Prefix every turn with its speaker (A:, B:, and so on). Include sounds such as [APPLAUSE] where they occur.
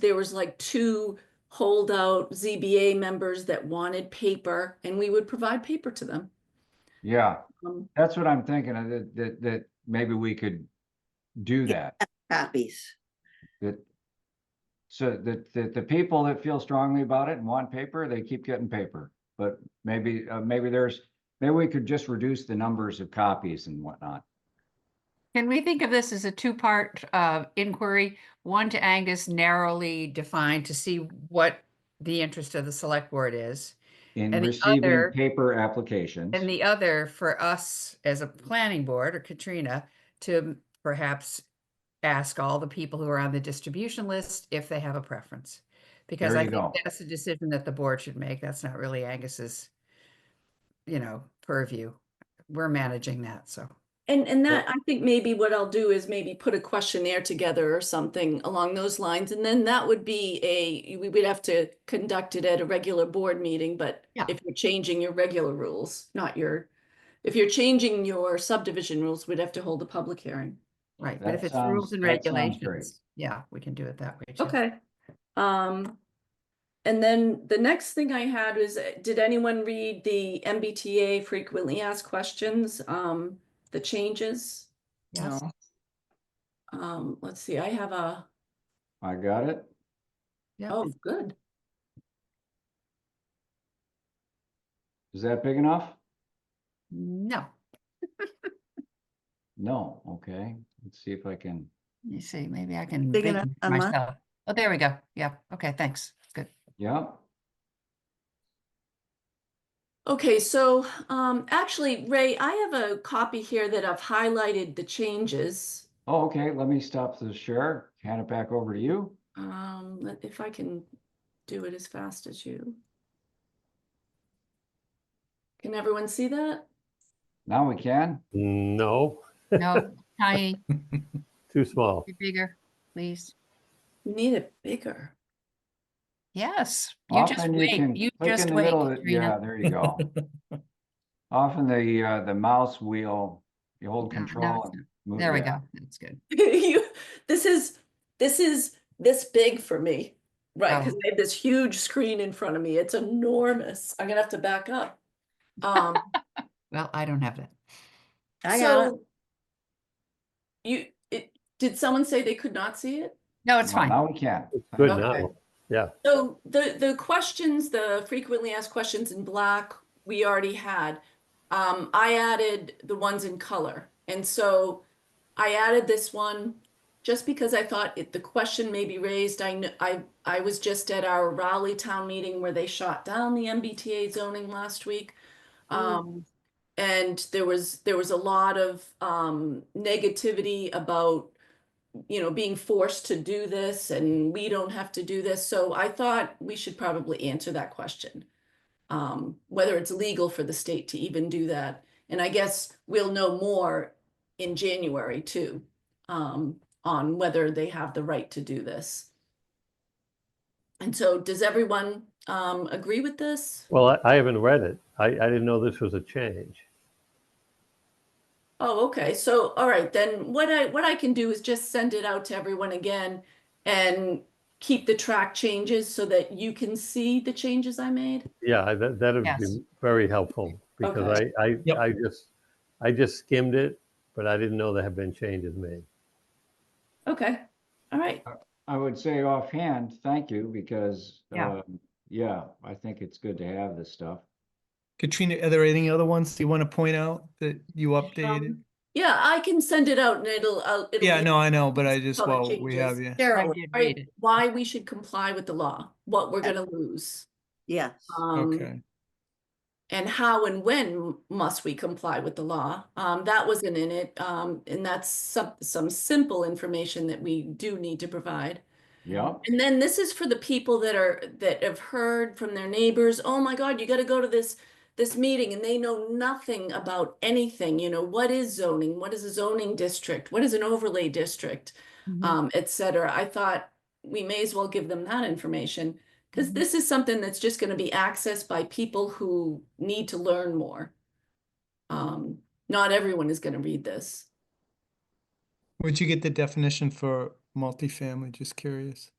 A: there was like two holdout ZBA members that wanted paper and we would provide paper to them.
B: Yeah,
A: Um,
B: that's what I'm thinking, of, that, that, that maybe we could do that,
C: copies.
B: that. So that, that the people that feel strongly about it and want paper, they keep getting paper, but maybe, uh, maybe there's, maybe we could just reduce the numbers of copies and whatnot.
D: Can we think of this as a two-part uh, inquiry? One to Angus narrowly defined to see what the interest of the select board is.
B: In
D: And the
B: receiving
D: other-
B: paper applications,
D: And the other for us as a planning board or Katrina to perhaps ask all the people who are on the distribution list if they have a preference. Because
B: There
D: I
B: you
D: think
B: go.
D: that's a decision that the board should make. That's not really Angus's, you know, purview. We're managing that, so.
A: And, and that, I think maybe what I'll do is maybe put a questionnaire together or something along those lines. And then that would be a, we would have to conduct it at a regular board meeting, but
D: Yeah.
A: if you're changing your regular rules, not your, if you're changing your subdivision rules, we'd have to hold a public hearing.
D: Right, but
B: That
D: if it's
B: sounds-
D: rules and
B: that sounds great.
D: regulations, yeah, we can do it that way. too.
A: Okay. Um, and then the next thing I had was, uh, did anyone read the MBTA frequently asked questions, um, the changes?
D: Yes.
A: Um, let's see, I have a,
B: I got it,
D: Yeah.
A: oh, good.
B: is that big enough?
D: No,
B: No, okay, let's see if I can,
D: let me see, maybe I can.
C: Big
D: big
C: enough
D: it
C: a month?
D: myself. Oh, there we go. Yeah, okay, thanks.
B: [LAUGHS]
D: Good.
B: yeah,
A: Okay, so um, actually, Ray, I have a copy here that I've highlighted the changes.
B: oh, okay, let me stop the share, hand it back over to you.
A: Um, let- if I can do it as fast as you. Can everyone see that?
B: Now we can,
E: No,
D: No, tiny,
E: too small.
D: be bigger, please.
A: We Need it bigger.
D: Yes, you just
B: Often you can
D: wait, you
B: click in
D: just
B: the
D: wait,
B: middle, of- yeah,
D: Katrina.
B: there you go.
D: [LAUGHS]
B: Often the, uh, the mouse wheel, you hold
D: No, no,
B: control.
D: Oh, it's
B: and
D: not.
B: move-
D: There we
B: yeah.
D: go, that's good.
A: [LAUGHS] You, this is, this is this big for me, right?
D: Oh.
A: Because I have this huge screen in front of me. It's enormous. I'm gonna have to back up. Um,
D: Well, I don't have that.
C: [LAUGHS] I got it.
A: so You, it, did someone say they could not see it?
D: No, it's
B: Well,
D: fine.
B: Now we can.
E: It's Good
A: Okay.
E: now.
A: So the, the questions, the frequently asked questions in black, we already had. Um, I added the ones in color. And so I added this one just because I thought it, the question may be raised. I kn- I, I was just at our Raleigh town meeting where they shot down the MBTA zoning last week. Um, and there was, there was a lot of, um, negativity about you know, being forced to do this and we don't have to do this. So I thought we should probably answer that question. Um, whether it's legal for the state to even do that. And I guess we'll know more in January too, um, on whether they have the right to do this. And so does everyone, um, agree with this?
E: Well, I- I haven't read it. I, I didn't know this was a change.
A: Oh, okay. So, all right, then what I what I can do is just send it out to everyone again and keep the track changes so that you can see the changes I made.
E: Yeah, I- that, that'd
D: Yes.
E: be very helpful because
A: Okay.
E: I, I,
F: Yep.
E: I just, I just skimmed it, but I didn't know there had been changes made.
A: Okay. All right.
B: I would say offhand, thank you, because,
D: Yeah.
B: um, yeah, I think it's good to have this stuff.
F: Katrina, are there any other ones you want to point out that you updated?
A: Um, Yeah, I can send it out and it'll I'll- it'll
F: Yeah,
A: be-
F: no, I know, but I just,
A: color
F: well, we have
A: changes.
F: you.
D: I
C: Cheryl,
D: did
A: all right,
D: read it.
A: why we should comply with the law, what we're
C: Yeah.
A: gonna lose,
C: yes.
A: um,
F: Okay,
A: and how and when must we comply with the law? Um, that wasn't in it, um, and that's some some simple information that we do need to provide.
B: Yep,
A: And then this is for the people that are, that have heard from their neighbors, oh my God, you gotta go to this, this meeting, and they know nothing about anything, you know, what is zoning? What is a zoning district? What is an overlay district?
D: Mhm.
A: Um, et cetera. I thought we may as well give them that information, because
D: Mhm.
A: this is something that's just gonna be accessed by people who need to learn more. Um, not everyone is gonna read this.
F: would you get the definition for multifamily, just curious?